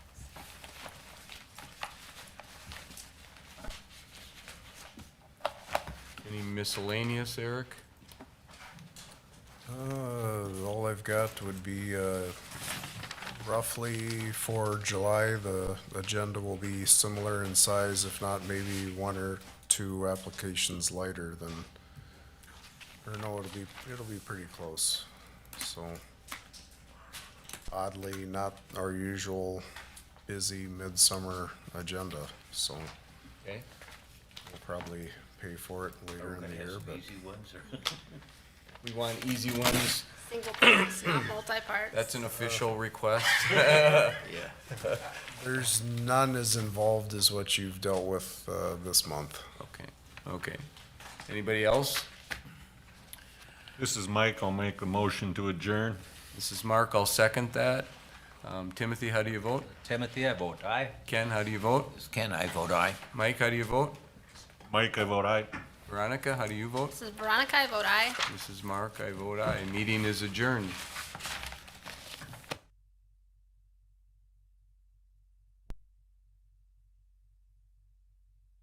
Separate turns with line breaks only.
Any miscellaneous, Eric?
Uh, All I've got would be uh, roughly for July, the agenda will be similar in size, if not maybe one or two applications lighter than, or no, it'll be, it'll be pretty close. So oddly, not our usual busy midsummer agenda, so we'll
Okay.
probably pay for it later in the year, but
We want easy ones.
Single parts, not multi-parts.
That's an official request.
there's none as involved as what you've dealt with uh, this month.
Okay, okay. Anybody else?
This is Mike. I'll make a motion to adjourn.
This is Mark. I'll second that. Um, Timothy, how do you vote?
Timothy, I vote aye.
Ken, how do you vote?
Ken, I vote aye.
Mike, how do you vote?
Mike, I vote aye.
Veronica, how do you vote?
This is Veronica, I vote aye.
This is Mark. I vote aye. Meeting is adjourned.